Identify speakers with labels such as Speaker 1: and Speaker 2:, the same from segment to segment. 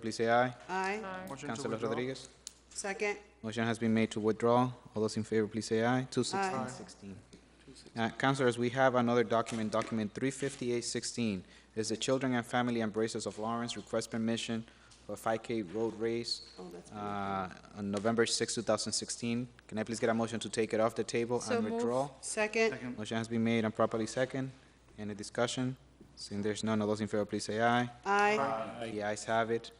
Speaker 1: Please say aye.
Speaker 2: Aye.
Speaker 3: Motion to
Speaker 1: Councilor
Speaker 3: withdraw.
Speaker 1: Rodriguez?
Speaker 2: Second.
Speaker 1: Motion has been made to withdraw. All those in favor, please say aye. Two
Speaker 2: Aye.
Speaker 1: sixteen sixteen. Uh, Councilors, we have another document, document three fifty-eight sixteen. Is the Children and Family Embraces of Lawrence request permission for five K road race
Speaker 2: Oh, that's been-
Speaker 1: uh, on November sixth, two thousand sixteen. Can I please get a motion to take it off the table
Speaker 4: So
Speaker 1: and
Speaker 4: moved.
Speaker 1: withdraw?
Speaker 2: Second.
Speaker 3: Second.
Speaker 1: Motion has been made and properly second. Any discussion? Seeing there's none, all those in favor, please say aye.
Speaker 2: Aye.
Speaker 1: The ayes have it.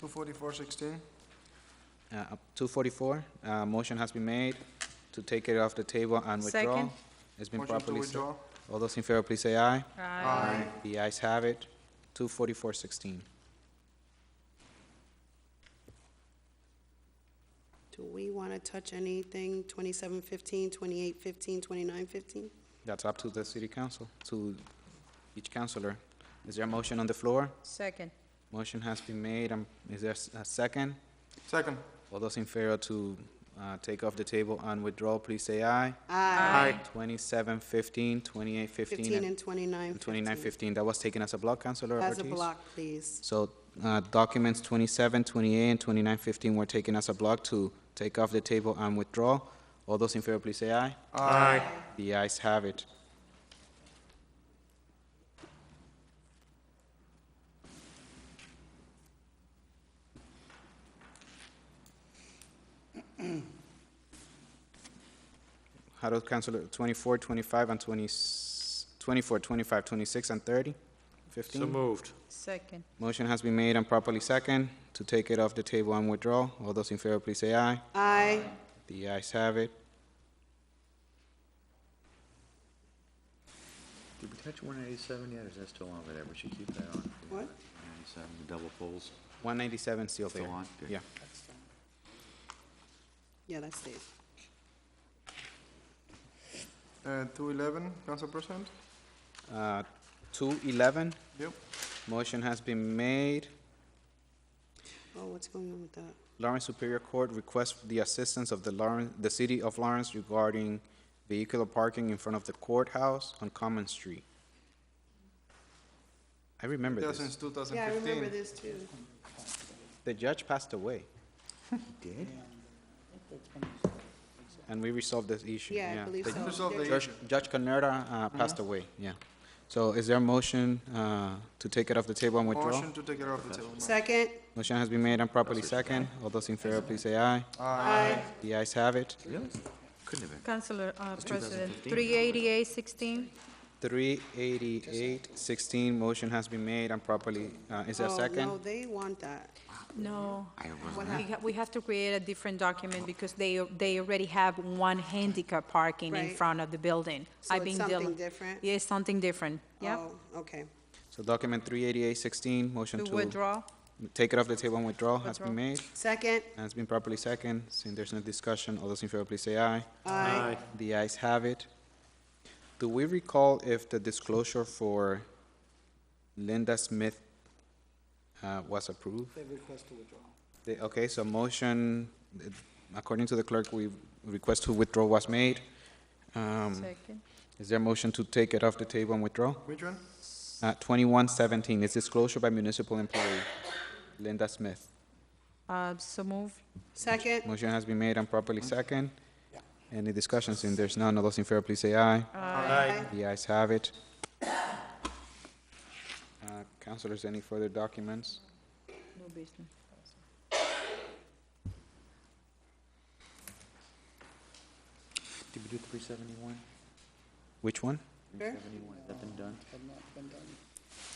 Speaker 3: Two forty-four sixteen.
Speaker 1: Uh, up- 244, uh, motion has been made to take it off the table and withdraw.
Speaker 4: Second.
Speaker 1: It's been
Speaker 3: Motion to
Speaker 1: properly seconded.
Speaker 3: withdraw.
Speaker 1: All those in favor, please say aye.
Speaker 4: Aye.
Speaker 1: The ayes have it. 24416.
Speaker 2: Do we want to touch anything, 2715, 2815, 2915?
Speaker 1: That's up to the city council, to each councilor. Is there a motion on the floor?
Speaker 4: Second.
Speaker 1: Motion has been made, um, is there s- a second?
Speaker 3: Second.
Speaker 1: All those in favor to uh, take off the table and withdraw, please say aye.
Speaker 3: Aye.
Speaker 1: 2715, 2815,
Speaker 2: 15 and
Speaker 1: and
Speaker 2: 2915.
Speaker 1: 2915. That was taken as a block, Councilor Ortiz?
Speaker 2: As a block, please.
Speaker 1: So uh, documents 27, 28, and 29, 15 were taken as a block to take off the table and withdraw. All those in favor, please say aye.
Speaker 3: Aye.
Speaker 1: The ayes have it. How does Councilor 24, 25, and 20, 24, 25, 26, and 30, 15?
Speaker 5: So moved.
Speaker 4: Second.
Speaker 1: Motion has been made and properly second to take it off the table and withdraw. All those in favor, please say aye.
Speaker 2: Aye.
Speaker 1: The ayes have it.
Speaker 6: Did we touch one eighty-seven yet, or is that still on over there? We should keep that on.
Speaker 2: What?
Speaker 6: One eighty-seven, the double poles.
Speaker 1: 197 still there.
Speaker 6: Still on? Good.
Speaker 1: Yeah.
Speaker 2: Yeah, that's it.
Speaker 3: Uh, two eleven, Council President?
Speaker 1: Uh, 211,
Speaker 3: Yep.
Speaker 1: motion has been made.
Speaker 2: Oh, what's going on with that?
Speaker 1: Lawrence Superior Court requests the assistance of the Lawrence, the city of Lawrence regarding vehicular parking in front of the courthouse on Common Street. I remember
Speaker 3: Yeah,
Speaker 1: this.
Speaker 3: since two thousand
Speaker 2: Yeah, I remember
Speaker 3: fifteen.
Speaker 2: this too.
Speaker 1: The judge passed away,
Speaker 6: Did?
Speaker 1: and we resolved this issue.
Speaker 2: Yeah, I believe
Speaker 1: The
Speaker 2: so.
Speaker 3: Resolve the
Speaker 2: There-
Speaker 3: issue.
Speaker 1: Judge Judge Canerda uh, passed away, yeah. So is there a motion uh, to take it off the table and withdraw?
Speaker 3: Motion to take it off the table.
Speaker 2: Second.
Speaker 1: Motion has been made and properly second. All those in favor, please say aye.
Speaker 2: Aye.
Speaker 1: The ayes have it.
Speaker 6: Really? Couldn't have been.
Speaker 4: Councilor, uh, President, three eighty-eight sixteen?
Speaker 1: 388-16, motion has been made and properly, uh, is there a
Speaker 2: Oh,
Speaker 1: second?
Speaker 2: No, they want that.
Speaker 4: No.
Speaker 6: I
Speaker 4: We
Speaker 6: wasn't there.
Speaker 4: ha- we have to create a different document because they, they already have one handicap parking in
Speaker 2: Right.
Speaker 4: front of the building.
Speaker 2: So
Speaker 4: I've
Speaker 2: it's
Speaker 4: been dealing-
Speaker 2: something different?
Speaker 4: Yeah, it's something different, yeah.
Speaker 2: Oh, okay.
Speaker 1: So document 388-16, motion
Speaker 4: To
Speaker 1: to
Speaker 4: withdraw,
Speaker 1: take it off the table and withdraw has
Speaker 4: Withdraw.
Speaker 1: been made
Speaker 2: Second.
Speaker 1: and it's been properly second. Since there's no discussion, all those in favor, please say aye.
Speaker 2: Aye.
Speaker 1: The ayes have it. Do we recall if the disclosure for Linda Smith uh, was approved? They request to withdraw. Okay, so motion, uh, according to the clerk, we, request to withdraw was made. Um,
Speaker 4: second.
Speaker 1: Is there a motion to take it off the table and withdraw?
Speaker 3: Which one?
Speaker 1: Uh, 2117, it's disclosure by municipal employee, Linda Smith.
Speaker 4: Uh, so move,
Speaker 2: Second.
Speaker 1: Motion has been made and properly second. Any discussions? Since there's none, all those in favor, please say aye.
Speaker 2: Aye.
Speaker 1: The ayes have it. Uh, Councilors, any further documents?
Speaker 4: no business.
Speaker 6: Did we do three seventy-one?
Speaker 1: Which one?
Speaker 2: Sure.
Speaker 6: Seventy-one, has that been done?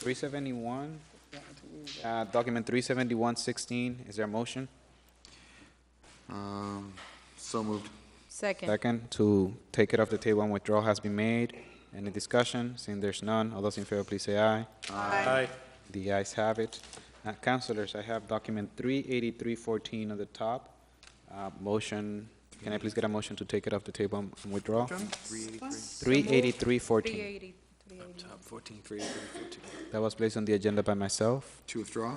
Speaker 1: 371, uh, document 37116, is there a motion?
Speaker 6: Um, so moved.
Speaker 4: Second,
Speaker 1: Second, to take it off the table and withdraw has been made. Any discussion? Seeing there's none, all those in favor, please say aye.
Speaker 5: Aye.
Speaker 1: The ayes have it. Uh, Councilors, I have document 38314 on the top. Uh, Motion, can I please get a motion to take it off the table and and withdraw?
Speaker 2: So moved.
Speaker 1: 38314.
Speaker 4: three eighty, three eighty.
Speaker 5: Fourteen, three,
Speaker 1: That was placed on the agenda by myself,
Speaker 6: To withdraw?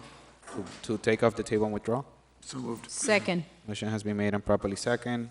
Speaker 1: to- to take off the table and withdraw.
Speaker 3: So moved.
Speaker 4: Second.
Speaker 1: Motion has been made and properly second.